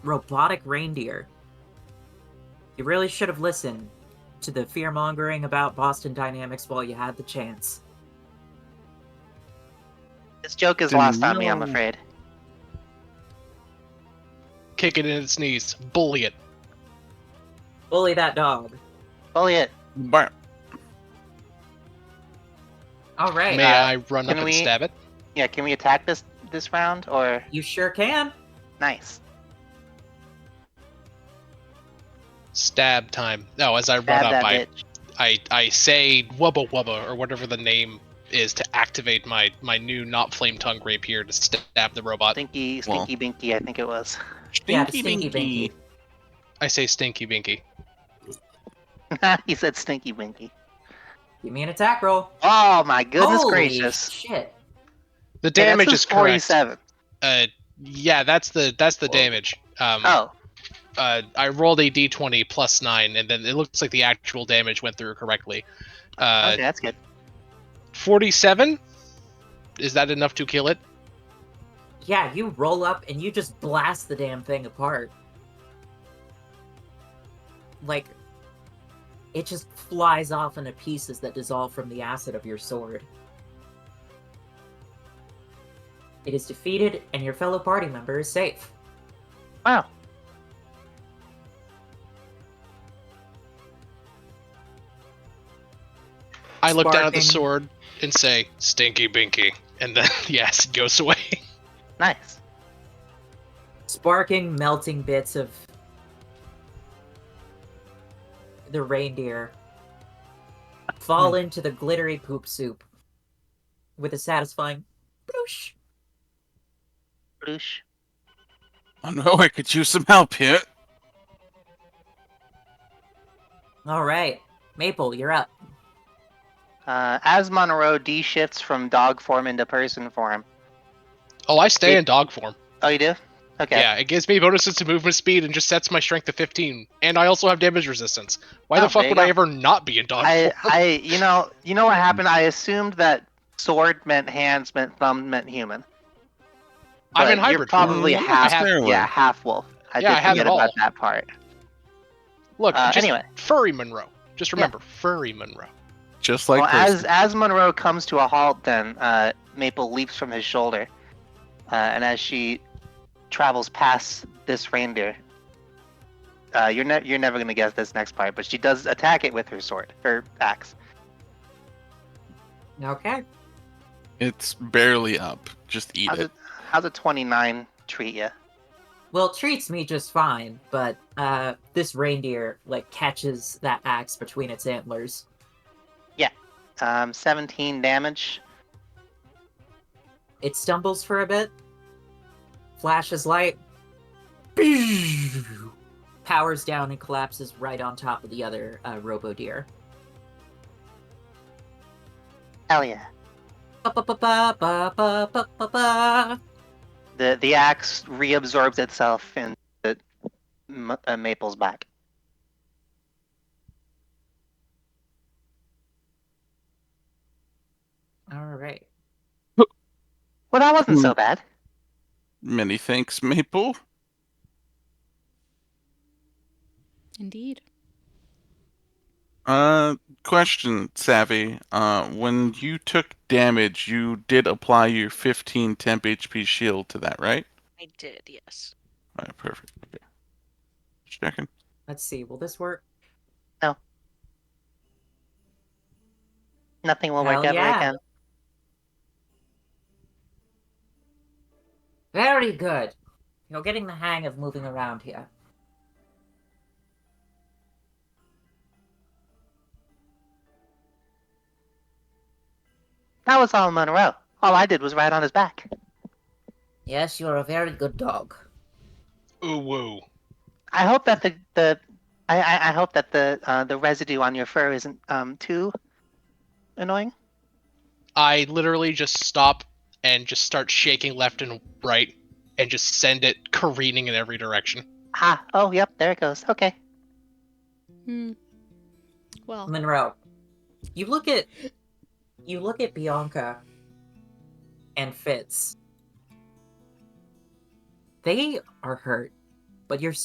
robotic reindeer. You really should have listened to the fear mongering about Boston Dynamics while you had the chance. This joke is Do lost on me, I'm not- afraid. Kick it in its knees. Bully it. Bully that dog. Bully it. Bark. All right. May I run uh, can up we- and stab it? Yeah, can we attack this this round or You sure can. nice? Stab time. No, as I Stab run that up, I, bitch. I I say wubba wubba or whatever the name is to activate my my new not flame tongue rapier to stab the robot. Stinky, Well. stinky, binky. I think it was. yeah, the Stinky stinky binky. binky. I say stinky binky. he said stinky, binky. Give me an attack roll. Oh my goodness Holy gracious! Shit. The Hey, that's damage who's is correct. forty-seven. Uh, yeah, that's the that's the Whoa. damage. Um, Oh, uh, I rolled a d20 plus nine, and then it looks like the actual damage went through correctly. Uh, okay, that's good. 47. Is that enough to kill it? Yeah, you roll up and you just blast the damn thing apart. Like, it just flies off into pieces that dissolve from the acid of your sword. It is defeated, and your fellow party member is safe. Wow. I look down at Sparking. the sword and say, Stinky Binky. And then the acid goes away. Nice. Sparking, melting bits of the reindeer fall into the glittery poop soup with a satisfying bloosh. Bloosh. I know I could use some help here. All right, Maple, you're up. Uh, as Monroe D shifts from dog form into person form. Oh, I stay It- in dog form. Oh, you do? Okay. Yeah, it gives me bonuses to movement speed and just sets my strength to 15. And I also have damage resistance. Why Oh, the fuck there would you I go. ever not be in dog I, form? I, you know, you know what happened? I assumed that sword meant hands, meant thumb, meant human. I'm but in You're hybrid form. probably Mm, half, fair one. yeah, half wolf. I Yeah, I did have forget it about all. that part. Look, Uh, just anyway. furry Monroe. Just remember, furry Monroe. Just like well, as this. as Monroe comes to a halt, then uh, Maple leaps from his shoulder, uh, and as she travels past this reindeer, uh, you're ne- you're never gonna guess this next part, but she does attack it with her sword, her axe. Okay. It's barely up. Just eat How's it. it? How's a twenty nine treat you? Well, it treats me just fine, but uh, this reindeer like catches that axe between its antlers. Um, seventeen damage. It stumbles for a bit, flashes light, powers down and collapses right on top of the other uh, robo deer. Hell yeah! Ba, ba, ba, ba, ba, ba, ba, ba, ba. The the axe reabsorbs itself in the Ma- uh, Maple's back. All right. Well, that wasn't Hmm. so bad. Many thanks, Maple. Indeed. Uh, question, Savvy. Uh, when you took damage, you did apply your 15 temp HP shield to that, right? I did, yes. All right, perfect. Okay. Just checking. Let's see. Will this work? Nothing will Hell work ever yeah. again. Very good. You're getting the hang of moving around here. That was all Monroe. All I did was ride on his back. Yes, you're a very good dog. Ooh, woo. I hope that the the I, I, I hope that the uh, the residue on your fur isn't um too annoying. I literally just stop and just start shaking left and right and just send it careening in every direction. Ah, oh yep, there it goes. Okay. Hmm. Well, Monroe, you look at you look at Bianca and Fitz. They are hurt, but you're